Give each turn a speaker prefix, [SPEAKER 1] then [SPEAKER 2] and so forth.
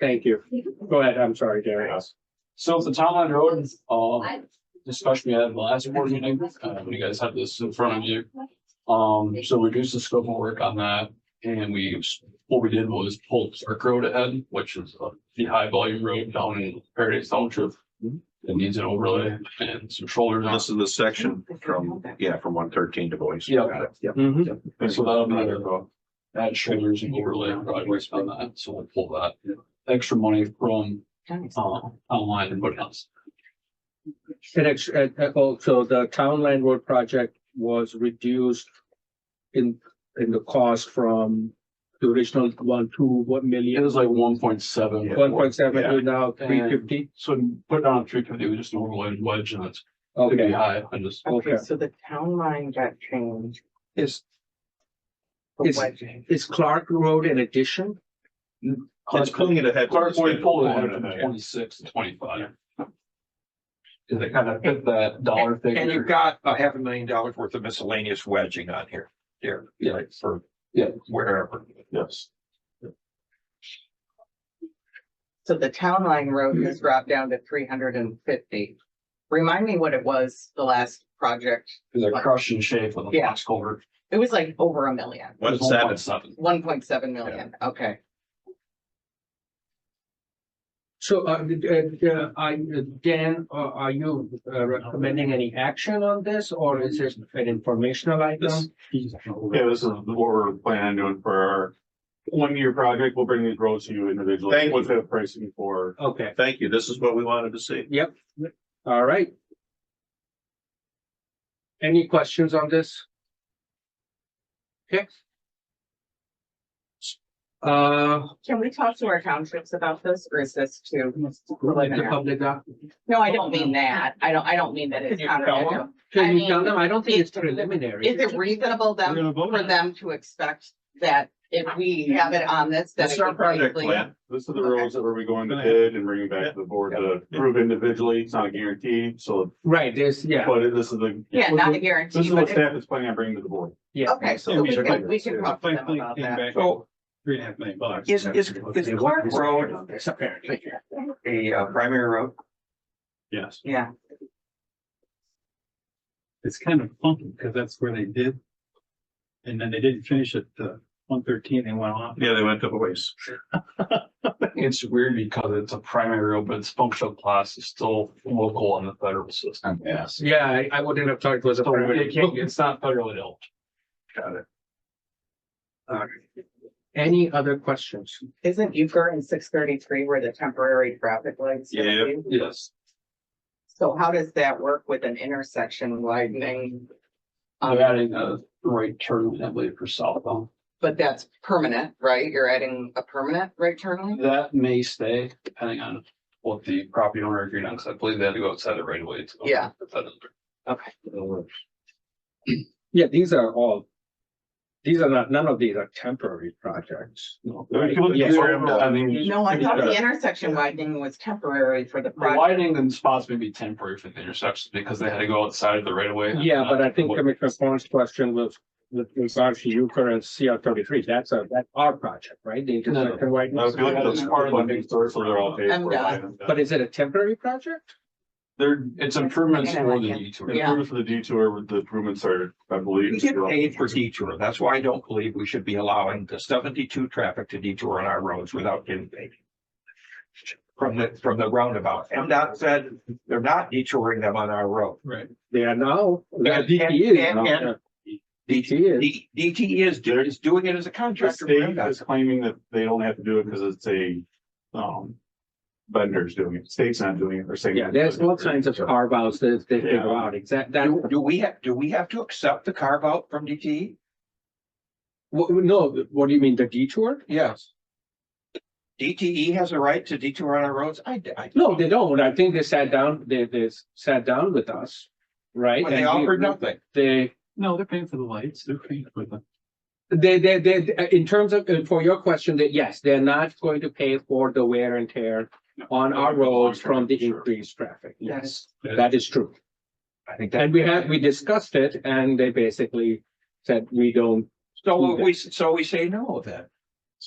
[SPEAKER 1] Thank you. Go ahead, I'm sorry, Gary.
[SPEAKER 2] So if the townline road, uh, discussion we had at the last board meeting, uh, you guys have this in front of you. Um, so reduce the scope of work on that, and we, what we did was pull Clark Road ahead, which is uh, the high volume road down in Paradise Township. It needs an overlay and some shoulders. on it.
[SPEAKER 3] This is the section from, yeah, from one thirteen to Boise.
[SPEAKER 2] Yeah.
[SPEAKER 3] Got it. Yep.
[SPEAKER 1] Mhm.
[SPEAKER 2] And so that'll be there, uh, add shoulders and overlay driveways on that, so we'll pull that extra money from, uh, online and what else.
[SPEAKER 1] And ex- uh, uh, oh, so the town land road project was reduced in, in the cost from the original one to what
[SPEAKER 2] It
[SPEAKER 1] million?
[SPEAKER 2] was like one point seven.
[SPEAKER 1] One point seven to now
[SPEAKER 2] Yeah.
[SPEAKER 1] three fifty?
[SPEAKER 2] So put it on three fifty, we just an overlay wedge and it's gonna be
[SPEAKER 1] Okay,
[SPEAKER 2] high, I just,
[SPEAKER 3] Oh,
[SPEAKER 1] Okay.
[SPEAKER 4] Okay, so the town line got changed.
[SPEAKER 1] is,
[SPEAKER 4] for
[SPEAKER 1] Is-
[SPEAKER 4] wedging.
[SPEAKER 1] is Clark Road an addition?
[SPEAKER 3] It's pulling it ahead.
[SPEAKER 2] Clark Boyd pulled it from
[SPEAKER 3] Yeah.
[SPEAKER 2] twenty-six to twenty-five. Cause it kind of fit that dollar figure.
[SPEAKER 5] And you've got a half a million dollars worth of miscellaneous wedging on here, there,
[SPEAKER 2] Yeah.
[SPEAKER 5] like for.
[SPEAKER 2] Yeah.
[SPEAKER 5] Wherever.
[SPEAKER 3] Yes.
[SPEAKER 4] So the town line road has dropped down to three hundred and fifty. Remind me what it was the last project.
[SPEAKER 2] Cause they're crushed and shaped with a
[SPEAKER 4] Yeah.
[SPEAKER 2] box culvert.
[SPEAKER 4] It was like over a million,
[SPEAKER 3] One
[SPEAKER 2] It's
[SPEAKER 3] seven.
[SPEAKER 2] 1.7.
[SPEAKER 4] one point seven million. Okay.
[SPEAKER 1] So, uh, uh, uh, I, Dan, uh, are you uh, recommending any action on this or is it an informational item?
[SPEAKER 6] "Oh,
[SPEAKER 7] Yeah, this is what we're planning on doing for our one-year project. We'll bring these roads to you individually.
[SPEAKER 3] Thank you.
[SPEAKER 7] What's the pricing for?
[SPEAKER 1] Okay,
[SPEAKER 3] Thank you. This is what we wanted to see.
[SPEAKER 1] all right. Any questions on this? Okay. Uh,
[SPEAKER 4] Can we talk to our townships about this or is this too?
[SPEAKER 1] like the public, uh,
[SPEAKER 4] No, I don't mean that. I don't, I don't mean that it's
[SPEAKER 5] Can you tell
[SPEAKER 4] counter.
[SPEAKER 1] can you
[SPEAKER 4] I
[SPEAKER 1] tell
[SPEAKER 4] mean,
[SPEAKER 1] them? I don't think it's
[SPEAKER 4] it-
[SPEAKER 1] preliminary.
[SPEAKER 4] Is it reasonable them, for them to expect that if we have it on this, that
[SPEAKER 3] This
[SPEAKER 4] it
[SPEAKER 3] is our
[SPEAKER 4] would
[SPEAKER 3] project
[SPEAKER 4] likely?
[SPEAKER 3] plan.
[SPEAKER 7] This are the roads that we're going to bid and bringing back to the board to approve individually. It's not a guarantee, so,
[SPEAKER 1] Right, there's, yeah,
[SPEAKER 7] but this is the.
[SPEAKER 4] Yeah, not a
[SPEAKER 7] This
[SPEAKER 4] guarantee,
[SPEAKER 7] is what
[SPEAKER 4] but it-
[SPEAKER 7] staff is planning on bringing to the board.
[SPEAKER 1] yeah.
[SPEAKER 4] okay, so we can, we can talk to them about that.
[SPEAKER 5] So
[SPEAKER 7] Three and a half million bucks.
[SPEAKER 5] is, is, is Clark Road
[SPEAKER 1] It's apparently.
[SPEAKER 5] a uh, primary road?
[SPEAKER 7] Yes.
[SPEAKER 4] Yeah,
[SPEAKER 6] it's kind of funky because that's where they did. And then they didn't finish at uh one thirteen, they went off.
[SPEAKER 3] Yeah, they went to Boise.
[SPEAKER 2] It's weird because it's a primary road, but its functional class is still local in the federal system. Yes.
[SPEAKER 1] Yeah, I, I wouldn't have thought it was a.
[SPEAKER 2] So
[SPEAKER 1] preliminary.
[SPEAKER 2] it Oh, can't, it's not federally held.
[SPEAKER 1] Any other questions?
[SPEAKER 4] isn't Euchre and six thirty-three where the temporary traffic lights? are?
[SPEAKER 3] Yeah.
[SPEAKER 2] Yes.
[SPEAKER 4] So how does that work with an intersection widening?
[SPEAKER 2] I'm
[SPEAKER 4] Um,
[SPEAKER 2] adding a right turn, lane, I believe, for southbound.
[SPEAKER 4] but that's permanent, right? You're adding a permanent right turn lane?
[SPEAKER 2] That may stay depending on what the property owner agreed on, because I believe they had to go outside the right of way. to-
[SPEAKER 4] Yeah.
[SPEAKER 2] But that doesn't-
[SPEAKER 4] Okay.
[SPEAKER 1] Yeah, these are all, these are not, none of these are temporary projects.
[SPEAKER 2] no.
[SPEAKER 7] If you look at the overall, I mean,
[SPEAKER 4] No, I thought the intersection widening was temporary for the
[SPEAKER 2] The
[SPEAKER 4] project.
[SPEAKER 2] widening and spots may be temporary for the intersections because they had to go outside of the right of way.
[SPEAKER 1] Yeah, but I think Commissioner Fong's question was with regards to Euchre and CR thirty-three, that's a, that's our project, right? The intersection
[SPEAKER 7] Now, if you look
[SPEAKER 1] widening.
[SPEAKER 7] at this part of the big source, so they're all paid for. by them.
[SPEAKER 1] But is it a temporary project?
[SPEAKER 2] There, it's improvements
[SPEAKER 4] Yeah, I
[SPEAKER 2] for
[SPEAKER 4] like
[SPEAKER 2] the
[SPEAKER 4] it.
[SPEAKER 2] detour.
[SPEAKER 4] Yeah.
[SPEAKER 7] Improvements for the detour, with the improvements are, I believe.
[SPEAKER 5] We get paid for detour. That's why I don't believe we should be allowing the seventy-two traffic to detour on our roads without getting paid. From the, from the roundabout. MDOT said they're not detouring them on our road.
[SPEAKER 2] Right.
[SPEAKER 1] They are now,
[SPEAKER 5] Yeah,
[SPEAKER 1] DT is.
[SPEAKER 5] and- and-
[SPEAKER 1] now.
[SPEAKER 5] and-
[SPEAKER 1] DT is.
[SPEAKER 5] D- DT is, do- is doing it as a
[SPEAKER 7] The
[SPEAKER 5] contractor. for
[SPEAKER 7] state
[SPEAKER 5] MDOT.
[SPEAKER 7] is claiming that they don't have to do it because it's a, um, vendors doing it, state's not doing it, or saying.
[SPEAKER 1] Yeah, there's all kinds of carve outs that they figure
[SPEAKER 7] Yeah.
[SPEAKER 1] out, exact, that,
[SPEAKER 5] Do, do we have, do we have to accept the carve out from E? DT?
[SPEAKER 1] wha- no, what do you mean, the detour?
[SPEAKER 5] Yes. DTE has a right to detour on our roads? I, I.
[SPEAKER 1] No, they don't. I think they sat down, they, they sat down with us, right?
[SPEAKER 5] But
[SPEAKER 1] And
[SPEAKER 5] they
[SPEAKER 1] we-
[SPEAKER 5] offered nothing.
[SPEAKER 1] They,
[SPEAKER 6] No, they're paying for the lights, they're paying for the.
[SPEAKER 1] they, they, they, in terms of, uh, for your question, that yes, they're not going to pay for the wear and tear on our roads from the increased traffic. Yes, that is true.
[SPEAKER 5] I think that,
[SPEAKER 1] And we had, we discussed it and they basically said, we don't,
[SPEAKER 5] so we, so we say no then.